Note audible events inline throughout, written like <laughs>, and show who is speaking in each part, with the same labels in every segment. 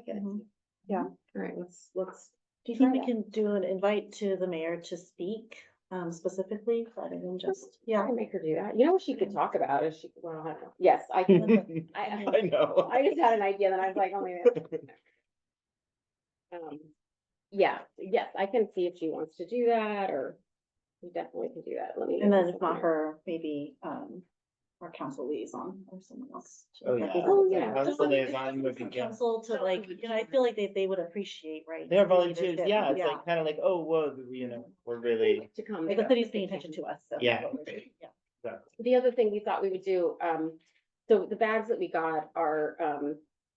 Speaker 1: get it.
Speaker 2: Mhm.
Speaker 3: All right, let's, let's.
Speaker 2: Do you think we can do an invite to the mayor to speak um specifically rather than just, yeah.
Speaker 3: I'll make her do that. You know what she could talk about is she, well, I don't know. Yes, I
Speaker 2: Hmm.
Speaker 3: can. I,
Speaker 4: <laughs> I know.
Speaker 3: I just had an idea that I was like, oh, maybe. I- Um, yeah, yes, I can see if she wants to do that or we definitely can do that. Let me.
Speaker 2: And then if not her, maybe um our council liaison or someone else. to
Speaker 4: <laughs> Oh,
Speaker 2: represent
Speaker 4: yeah.
Speaker 2: us.
Speaker 3: Oh, yeah.
Speaker 2: Just
Speaker 4: Council
Speaker 2: like-
Speaker 4: liaison would be
Speaker 2: for
Speaker 4: good.
Speaker 2: Council to like, you know, I feel like they they would appreciate, right?
Speaker 4: They're
Speaker 2: the
Speaker 4: volunteers,
Speaker 2: leadership,
Speaker 4: yeah, it's like, kind of like, oh, whoa, you know, we're really,
Speaker 3: To come.
Speaker 2: Like the city's paying attention to us, so.
Speaker 4: Yeah.
Speaker 2: Yeah.
Speaker 3: The other thing we thought we would do, um, so the bags that we got are, um,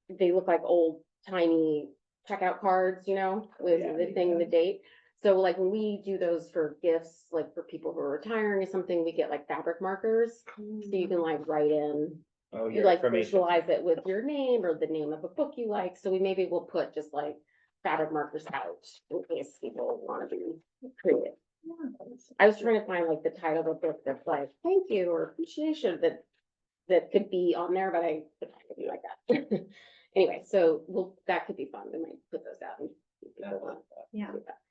Speaker 3: they look like old tiny checkout cards, you know, with
Speaker 4: Yeah,
Speaker 3: the thing, the date. So like when we do those for gifts, like for people who are retiring or something, we get like fabric markers. So you can like write in, you
Speaker 4: oh, Mm-hmm. your
Speaker 3: like
Speaker 4: information.
Speaker 3: visualize it with your name or the name of a book you like. So we maybe will put just like fabric markers out in case people want to be creative. I was trying to find like the title of the book that's like, thank you or appreciation that. That could be on there, but I, but I could be like that. <laughs> Anyway, so well, that could be fun. We might put those out. and see if people want
Speaker 2: Yeah.
Speaker 3: to do that.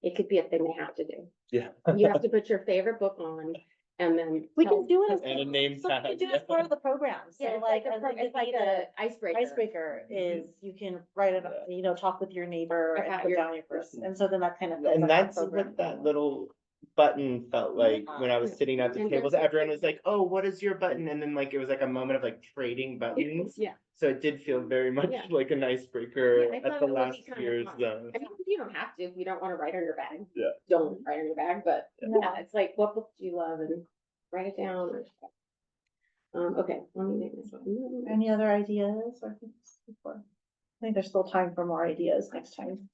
Speaker 3: It could be a thing they have to do.
Speaker 4: Yeah.
Speaker 3: You have to put your favorite book on and then.
Speaker 2: We
Speaker 3: tell-
Speaker 2: can do it as.
Speaker 4: And
Speaker 2: <laughs>
Speaker 4: a name
Speaker 2: so we can
Speaker 4: tag.
Speaker 2: do it as part of the program.
Speaker 3: Yeah,
Speaker 2: So
Speaker 3: it's
Speaker 2: like,
Speaker 3: a
Speaker 2: as
Speaker 3: pro-
Speaker 2: like
Speaker 3: it's
Speaker 2: like
Speaker 3: a
Speaker 2: the
Speaker 3: icebreaker.
Speaker 2: icebreaker is you can write it,
Speaker 4: Mm-hmm. Yeah.
Speaker 2: you know, talk with your neighbor
Speaker 3: Or
Speaker 2: and
Speaker 3: have
Speaker 2: put
Speaker 3: your-
Speaker 2: down your person. And so then that kind of. fits
Speaker 4: And
Speaker 2: under
Speaker 4: that's
Speaker 2: program.
Speaker 4: what that little button felt like when I was sitting at the
Speaker 3: And
Speaker 4: tables,
Speaker 3: there's-
Speaker 4: everyone was like, oh, what is your button? And then like, it was like a moment of like trading buttons.
Speaker 3: Yeah.
Speaker 4: So it did feel very much
Speaker 3: Yeah.
Speaker 4: like an icebreaker
Speaker 3: Yeah, I
Speaker 4: at
Speaker 3: thought
Speaker 4: the
Speaker 3: it would be
Speaker 4: last
Speaker 3: kinda
Speaker 4: year's,
Speaker 3: fun.
Speaker 4: uh,
Speaker 3: I mean, you don't have to, if you don't want to write on your bag.
Speaker 4: Yeah.
Speaker 3: Don't write on your bag, but
Speaker 2: Yeah.
Speaker 3: yeah, it's like, what book do you love and write it down. or- Um, okay, let me make this one.
Speaker 2: Any other ideas or things before? I think there's still time for more ideas next time.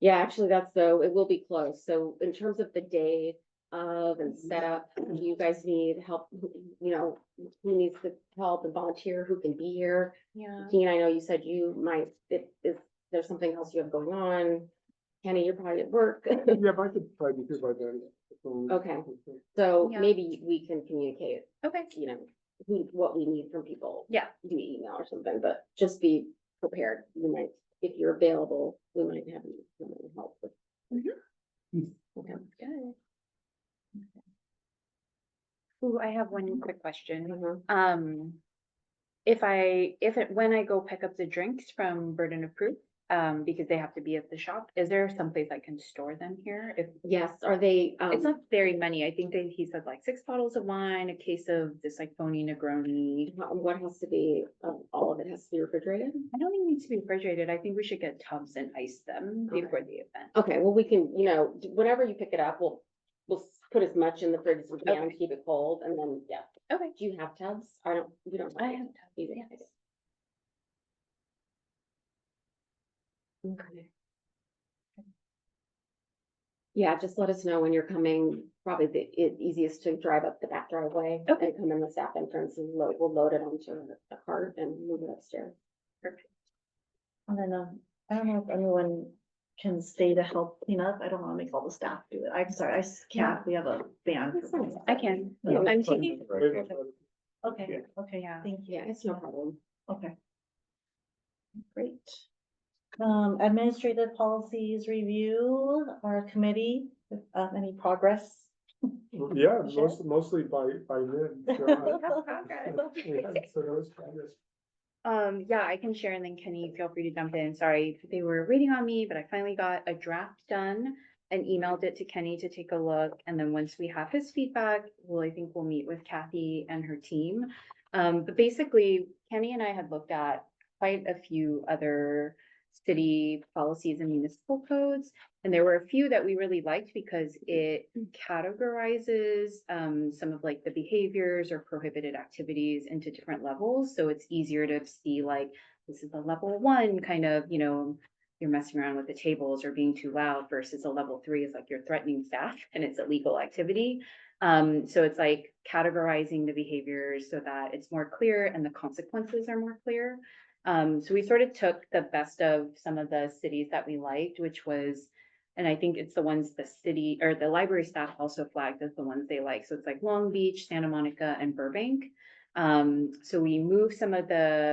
Speaker 3: Yeah, actually, that's so, it will be close. So in terms of the day of and setup, do you guys need help? You know, who needs the help and volunteer, who can be here?
Speaker 1: Yeah.
Speaker 3: Dean, I know you said you might, if, if there's something else you have going on, Kenny, you're probably at work.
Speaker 5: <laughs>
Speaker 3: <laughs>
Speaker 5: Yeah, but I could probably be here by then. so- <laughs>
Speaker 3: Okay. So
Speaker 1: Yeah.
Speaker 3: maybe we can communicate,
Speaker 1: Okay.
Speaker 3: you know, who, what we need from people.
Speaker 1: Yeah.
Speaker 3: Via email or something, but just be prepared. You might, if you're available, we might have you come and help with. Okay.
Speaker 1: Ooh, I have one quick question.
Speaker 3: Mhm.
Speaker 1: Um, if I, if it, when I go pick up the drinks from Burden of Proof, um, because they have to be at the shop, is there someplace I can store them here? If,
Speaker 3: Yes, are they,
Speaker 1: it's not
Speaker 3: um,
Speaker 1: very many. I think they, he said like six bottles of wine, a case of this like phony Negroni.
Speaker 3: how- what has to be, um, all of it has to be refrigerated?
Speaker 1: I don't think it needs to be refrigerated. I think we should get tubs and ice them
Speaker 3: Okay.
Speaker 1: before the event.
Speaker 3: Okay, well, we can, you know, d- whenever you pick it up, we'll, we'll s- put as much in the fridge as we can,
Speaker 1: Okay.
Speaker 3: keep it cold, and then, yeah.
Speaker 1: Okay.
Speaker 3: Do you have tubs? I don't, we don't.
Speaker 1: I have tubs,
Speaker 3: either.
Speaker 1: yes.
Speaker 3: Okay. Yeah, just let us know when you're coming, probably the, it easiest to drive up the back driveway.
Speaker 1: Okay.
Speaker 3: And come in the staff entrance and load, we'll load it onto a cart and move it upstairs.
Speaker 2: And then, um, I don't know if anyone can stay to help clean up. I don't wanna make all the staff do it. I'm sorry, I s- can't. We have a ban.
Speaker 3: That's fine.
Speaker 1: I can.
Speaker 4: Yeah.
Speaker 1: I'm taking,
Speaker 2: Okay, okay,
Speaker 1: Yeah.
Speaker 2: thank you.
Speaker 3: Yeah, it's no problem.
Speaker 2: Okay. Great. Um, administrative policies review, our committee, if, uh, any progress? <laughs>
Speaker 5: Yeah,
Speaker 2: Sure.
Speaker 5: most, mostly by, by then. so, uh, yeah, So that was progress.
Speaker 1: Um, yeah, I can share and then Kenny, feel free to jump in. Sorry, if they were waiting on me, but I finally got a draft done and emailed it to Kenny to take a look. And then once we have his feedback, well, I think we'll meet with Kathy and her team. Um, but basically Kenny and I had looked at quite a few other city policies and municipal codes. And there were a few that we really liked because it categorizes um, some of like the behaviors or prohibited activities into different levels. So it's easier to see like, this is a level one kind of, you know, you're messing around with the tables or being too loud versus a level three is like you're threatening staff <laughs> and it's illegal activity. Um, so it's like categorizing the behaviors so that it's more clear and the consequences are more clear. Um, so we sort of took the best of some of the cities that we liked, which was and I think it's the ones the city or the library staff also flagged as the ones they like. So it's like Long Beach, Santa Monica and Burbank. Um, so we moved some of the